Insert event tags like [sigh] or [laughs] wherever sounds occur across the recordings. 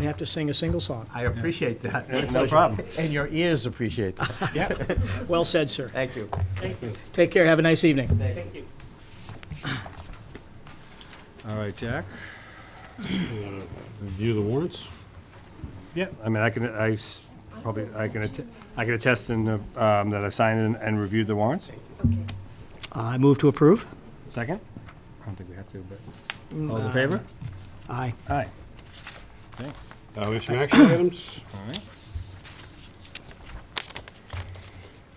and have to sing a single song. I appreciate that. [laughs] No problem. And your ears appreciate that. Yep. Well said, sir. Thank you. Take care, have a nice evening. All right, Jack. View the warrants? Yeah, I mean, I can, I s- probably, I can, att- I can attest in, the, um, that I've signed and- and reviewed the warrants. I move to approve. Second? I don't think we have to, but. All those in favor? Aye. Aye. Uh, we have some action items. All right.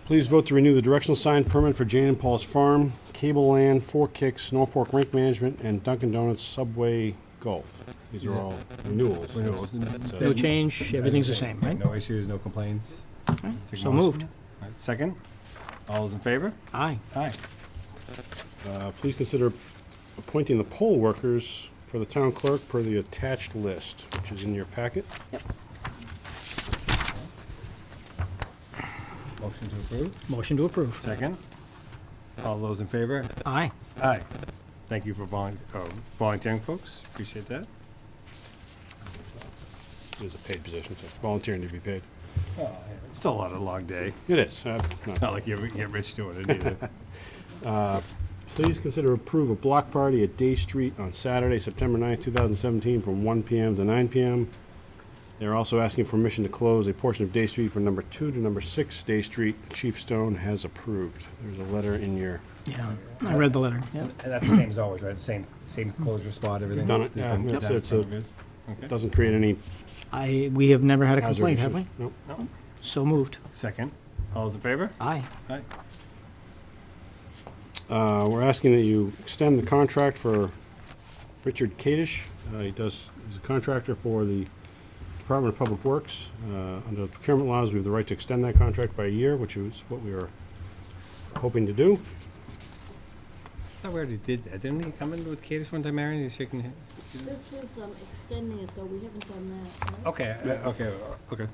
Please vote to renew the directional sign permit for Jane and Paul's Farm, Cable Land, Four Kicks, Norfolk Rink Management, and Dunkin' Donuts Subway Golf. These are all renewals. Renewals. No change, everything's the same, right? No issues, no complaints. Take So motion. moved. All right, Second? All those in favor? Aye. Aye. Uh, Please consider appointing the poll workers for the town clerk per the attached list, which is in your packet. Motion to approve. Motion to approve. Second? All those in favor? Aye. Aye. Thank you for volun- oh, volunteering, folks. Appreciate that. It is a paid position, so volunteering to be paid. It's still a lot of long day. It is. uh, no. Not like you ever get rich doing it either. Please consider approve a block party at Day Street on Saturday, September 9th, 2017, from 1 PM to 9 PM. They're also asking permission to close a portion of Day Street from number 2 to number 6 Day Street. Chief Stone has approved. There's a letter in your, Yeah, I read the letter. Yep. And that's the same as always, right? Same, same closure spot, everything? Done it, yeah, Done, it's- done, it's a- good. Okay. doesn't create any I, we have never had a hazard complaint, issues. have we? Nope. No. So moved. Second. All those in favor? Aye. Aye. Uh, We're asking that you extend the contract for Richard Kadish. Uh, He does, he's a contractor for the Department of Public Works. Uh, Under procurement laws, we have the right to extend that contract by a year, which is what we were hoping to do. I thought we already did that. Didn't he come in with Katie one time, Aaron? He's shaking his. This is um, extending it, though, we haven't done that. right? Okay, uh, okay, uh, okay.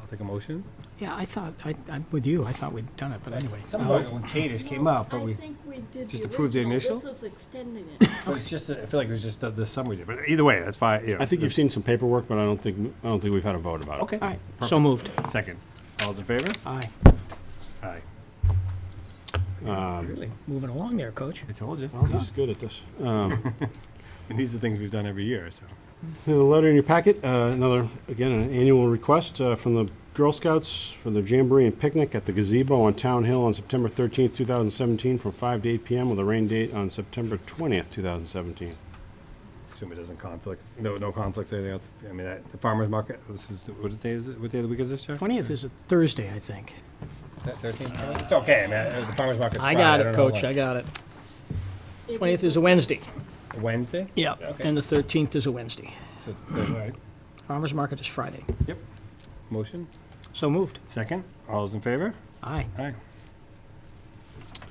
I'll take a motion. Yeah, I thought, I, I'm with you, I thought we'd done it, but anyway. Something about when Katie came up, but I we, think we did Just the approve the original. initial? This is extending [coughs] it. but it's just, I feel like it was just the, the summary. did, But either way, that's fine, you know. I think you've seen some paperwork, but I don't think, I don't think we've had a vote about it. Okay. All right, so moved. Second. All those in favor? Aye. Aye. Really, moving along there, Coach. I told you. He's good at this. Um, And these are things we've done every year, so. The letter in your packet, uh, another, again, an annual request uh, from the Girl Scouts for the Jamboree and Picnic at the gazebo on Town Hill on September 13th, 2017, from 5 to 8 PM with a rain date on September 20th, 2017. Assume it doesn't conflict, no, no conflicts, anything else. I mean, that- the farmer's market, this is, what day is it, what day of the week is this, Jack? Twentieth is a Thursday, I think. Thirteenth. Uh, It's okay, man, the farmer's market's I Friday. got it, don't know Coach, I what- got it. It Twentieth is a Wednesday. Wednesday? Yeah, Okay. and the thirteenth is a Wednesday. So, all right. Farmers Market is Friday. Yep. Motion? So moved. Second. All those in favor? Aye.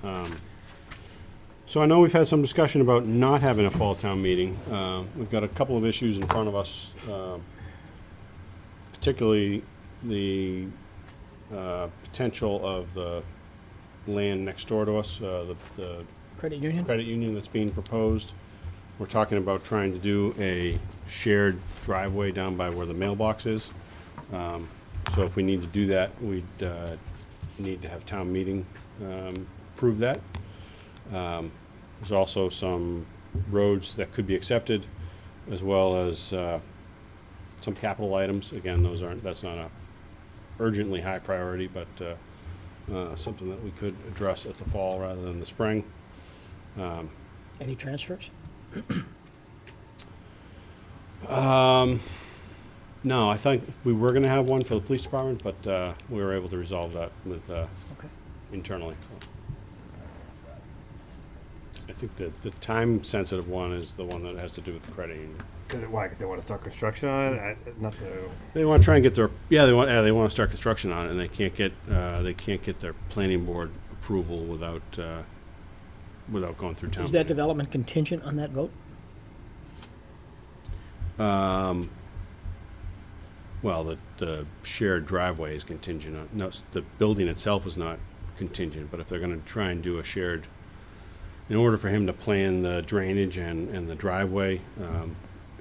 Aye. So I know we've had some discussion about not having a fall town meeting. Uh, We've got a couple of issues in front of us, um, particularly the uh, potential of the land next door to us, uh, the the Credit Union? credit union that's being proposed. We're talking about trying to do a shared driveway down by where the mailbox is. Um, So if we need to do that, we'd uh, need to have town meeting um, approve that. Um, There's also some roads that could be accepted, as well as uh, some capital items. Again, those aren't, that's not a urgently high priority, but uh, uh, something that we could address at the fall rather than the spring. Any transfers? No, I think we were going to have one for the police department, but uh, we were able to resolve that with, uh, Okay. internally. I think the, the time-sensitive one is the one that has to do with the credit union. Because why? Because they want to start construction on it? I- Nothing. I don't- They want to try and get their, yeah, they want, yeah, they want to start construction on it, and they can't get, uh, they can't get their planning board approval without, uh, without going through town. Is that meeting. development contingent on that vote? Well, the, the shared driveway is contingent on, no, s- the building itself is not contingent, but if they're gonna try and do a shared, in order for him to plan the drainage and, and the driveway, um,